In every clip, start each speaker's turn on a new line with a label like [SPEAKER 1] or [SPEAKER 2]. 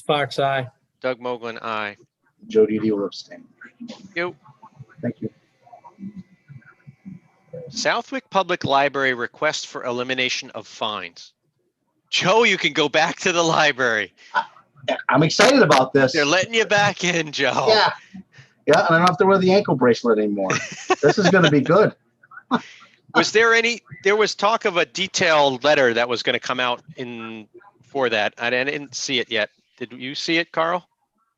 [SPEAKER 1] Fox, aye.
[SPEAKER 2] Doug Moglen, aye.
[SPEAKER 3] Joe Didi will abstain.
[SPEAKER 2] You.
[SPEAKER 3] Thank you.
[SPEAKER 2] Southwick Public Library request for elimination of fines. Joe, you can go back to the library.
[SPEAKER 3] Yeah, I'm excited about this.
[SPEAKER 2] They're oh. letting you back in, Joe.
[SPEAKER 3] Yeah. Yeah, and I don't have to wear the ankle bracelet anymore. This is gonna be good.
[SPEAKER 2] Was there any, there was talk of a detailed letter that was going to come out in, for that. I didn't I didn't see it yet. Did you see it, Carl?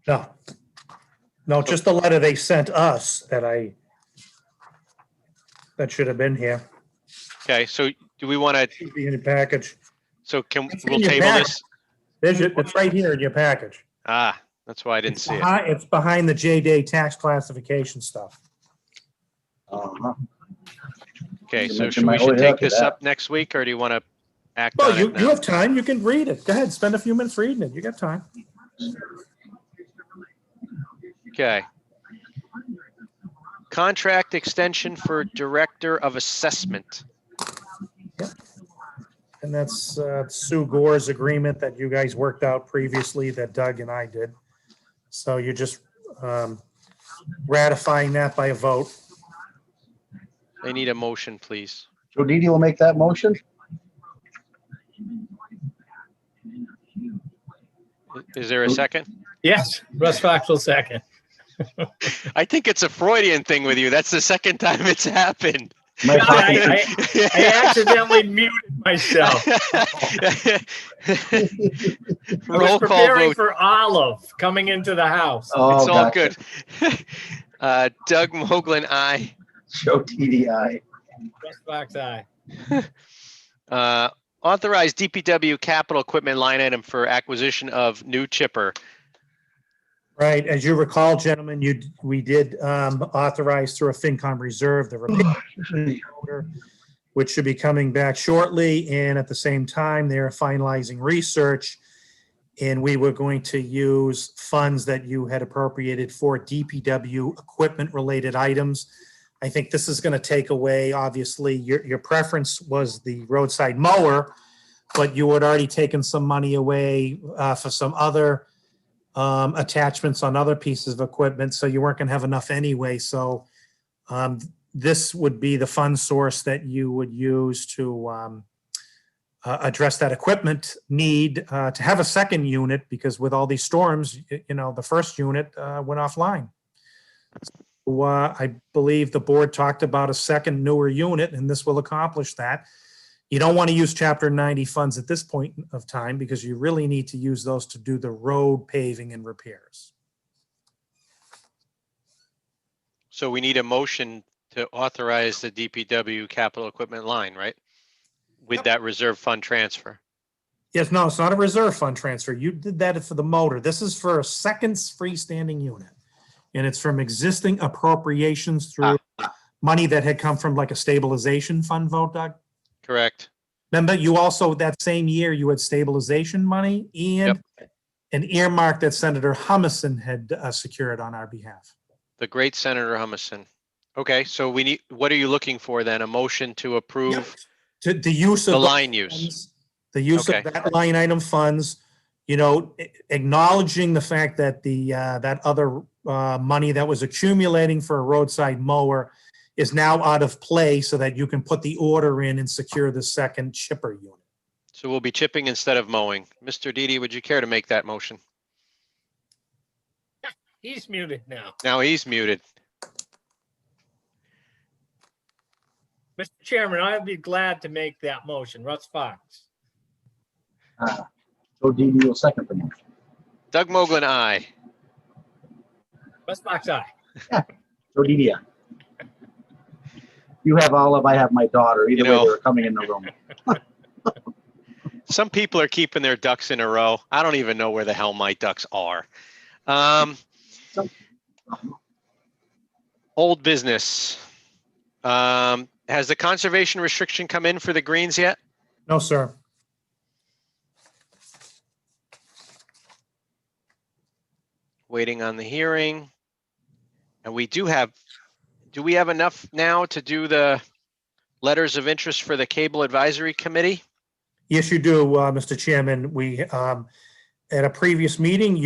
[SPEAKER 4] No. No, just the letter they sent us that I, that should have been here,
[SPEAKER 2] Okay, so do we want to,
[SPEAKER 4] should be in your package.
[SPEAKER 2] so can,
[SPEAKER 4] It's in
[SPEAKER 2] we'll
[SPEAKER 4] your
[SPEAKER 2] table
[SPEAKER 4] packet.
[SPEAKER 2] this?
[SPEAKER 4] There's your, it's right here in your package.
[SPEAKER 2] Ah, that's why I didn't
[SPEAKER 4] It's
[SPEAKER 2] see it.
[SPEAKER 4] behi- It's behind the J Day tax classification stuff.
[SPEAKER 3] Uh-huh.
[SPEAKER 2] Okay,
[SPEAKER 3] You
[SPEAKER 2] so
[SPEAKER 3] mentioned
[SPEAKER 2] should
[SPEAKER 3] my
[SPEAKER 2] we should
[SPEAKER 3] only
[SPEAKER 2] take
[SPEAKER 3] happy
[SPEAKER 2] this
[SPEAKER 3] that.
[SPEAKER 2] up next week or do you want to act
[SPEAKER 4] Well,
[SPEAKER 2] on
[SPEAKER 4] you,
[SPEAKER 2] it
[SPEAKER 4] you
[SPEAKER 2] now?
[SPEAKER 4] have time, you can read it. Go ahead, spend a few minutes reading it, you got time.
[SPEAKER 2] Okay. Contract extension for Director of Assessment.
[SPEAKER 4] And that's uh, Sue Gore's agreement that you guys worked out previously that Doug and I did. So you're just um, ratifying that by a vote.
[SPEAKER 2] I need a motion, please.
[SPEAKER 3] Joe Didi will make that motion.
[SPEAKER 2] Is there a second?
[SPEAKER 1] Yes, Russ Fox will second.
[SPEAKER 2] I think it's a Freudian thing with you. That's the second time it's happened.
[SPEAKER 3] My
[SPEAKER 1] No,
[SPEAKER 3] pocket-
[SPEAKER 1] I- I accidentally muted myself. I was
[SPEAKER 2] Roll call
[SPEAKER 1] preparing
[SPEAKER 2] vote.
[SPEAKER 1] for Olive coming into the house.
[SPEAKER 3] Oh,
[SPEAKER 2] It's all
[SPEAKER 3] gotcha.
[SPEAKER 2] good. Uh, Doug Moglen, aye.
[SPEAKER 3] Joe Didi, aye.
[SPEAKER 1] Russ Fox, aye.
[SPEAKER 2] Uh, Authorize DPW capital equipment line item for acquisition of new chipper.
[SPEAKER 4] Right, as you recall, gentlemen, you, we did um, authorize through a FinCom reserve the repair order, which should be coming back shortly, and at the same time, they're finalizing research. And we were going to use funds that you had appropriated for DPW equipment-related items. I think this is going to take away, obviously, your, your preference was the roadside mower, but you had already taken some money away uh, for some other um, attachments on other pieces of equipment, so you weren't gonna have enough anyway, so um, this would be the fund source that you would use to um, uh, address that equipment need, uh, to have a second unit, because with all these storms, y- you know, the first unit uh, went offline. So, uh, I believe the board talked about a second newer unit, and this will accomplish that. You don't want to use chapter ninety funds at this point of time because you really need to use those to do the road paving and repairs.
[SPEAKER 2] So we need a motion to authorize the DPW capital equipment line, right? With
[SPEAKER 4] Yep.
[SPEAKER 2] that reserve fund transfer.
[SPEAKER 4] Yes, no, it's not a reserve fund transfer. You did that for the motor. This is for a second freestanding unit. And it's from existing appropriations through money that had come from like a stabilization fund vote, Doug.
[SPEAKER 2] Correct.
[SPEAKER 4] Remember, you also, that same year, you had stabilization money and an earmark that Senator Humison had uh, secured on our behalf.
[SPEAKER 2] The great Senator Humison. Okay, so we need, what are you looking for then? A motion to approve
[SPEAKER 4] To the use of.
[SPEAKER 2] the
[SPEAKER 4] those
[SPEAKER 2] line use?
[SPEAKER 4] funds, The use
[SPEAKER 2] Okay.
[SPEAKER 4] of that line item funds, you know, a- acknowledging the fact that the, uh, that other, uh, money that was accumulating for a roadside mower is now out of play so that you can put the order in and secure the second chipper unit.
[SPEAKER 2] So we'll be chipping instead of mowing. Mr. Didi, would you care to make that motion?
[SPEAKER 1] He's muted now.
[SPEAKER 2] Now he's muted.
[SPEAKER 1] Mr. Chairman, I'd be glad to make that motion. Russ Fox.
[SPEAKER 3] Uh, Joe Didi will second the motion.
[SPEAKER 2] Doug Moglen, aye.
[SPEAKER 1] Russ Fox, aye.
[SPEAKER 3] Joe Didi, aye. You have Olive, I have my daughter.
[SPEAKER 2] You
[SPEAKER 3] Either way,
[SPEAKER 2] know-
[SPEAKER 3] they're coming in the room.
[SPEAKER 2] Some people are keeping their ducks in a row. I don't even know where the hell my ducks are. Um, old business. Um, has the conservation restriction come in for the greens yet?
[SPEAKER 4] No, sir.
[SPEAKER 2] Waiting on the hearing. And we do have, do we have enough now to do the letters of interest for the cable advisory committee?
[SPEAKER 4] Yes, you do, uh, Mr. Chairman. We, um, at a previous meeting,